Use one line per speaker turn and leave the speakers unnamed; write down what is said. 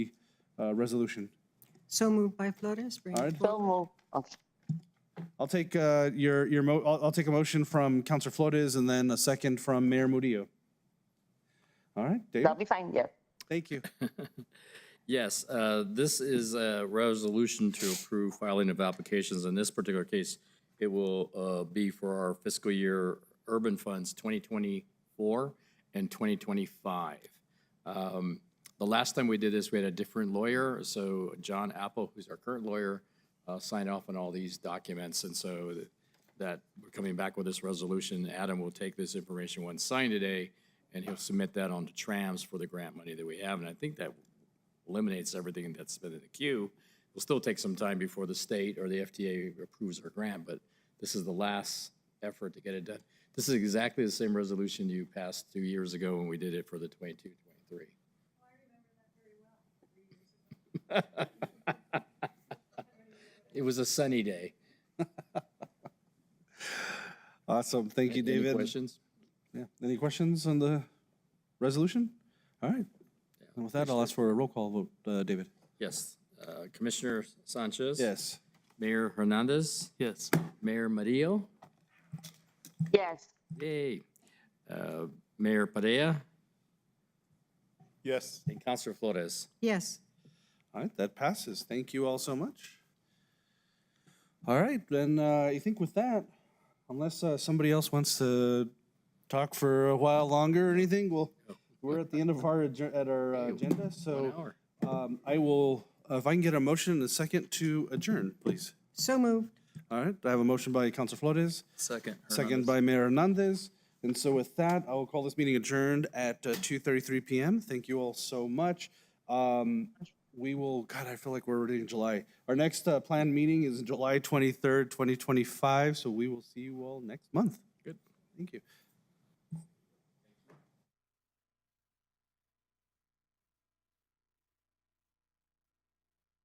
uh, resolution.
So moved by Flores, bring
All
it
right.
forward.
So move. Oh,
I'll take uh, your, your, mo- I'll, I'll take a motion from Counselor Flores and then a second from Mayor Murillo. All right, David,
That'll be fine, yeah.
thank you.
Yes, uh, this is a resolution to approve filing of applications. In this particular case, it will uh, be for our fiscal year urban funds 2024 and 2025. Um, The last time we did this, we had a different lawyer, so John Apple, who's our current lawyer, uh, signed off on all these documents, and so th- that, we're coming back with this resolution. Adam will take this information once signed today, and he'll submit that on to TRAMS for the grant money that we have, and I think that eliminates everything that's been in the queue. It'll still take some time before the state or the FTA approves our grant, but this is the last effort to get it done. This is exactly the same resolution you passed two years ago when we did it for the 22, 23. It was a sunny day.
Awesome, thank you,
Any
David.
questions?
Yeah. Any questions on the resolution? All right. And with that, I'll ask for a roll call vote, uh, David.
Yes. Uh, Commissioner Sanchez?
Yes.
Mayor Hernandez?
Yes.
Mayor Murillo?
Yes,
Yay. Uh, Mayor Padilla?
Yes.
And Counselor Flores?
Yes,
All right, that passes. Thank you all so much. All right, then uh, I think with that, unless uh, somebody else wants to talk for a while longer or anything, well, we're at the end of our adjour- at our uh, agenda.
One
So
hour.
um, I will, uh, if I can get a motion and a second to adjourn, please.
so moved.
All right, I have a motion by Council Flores,
Second.
second by Mayor Hernandez. And so with that, I will call this meeting adjourned at uh, 2:33 PM. Thank you all so much. Um, We will, God, I feel like we're already in July. Our next uh, planned meeting is July 23rd, 2025, so we will see you all next month. Good. Thank you.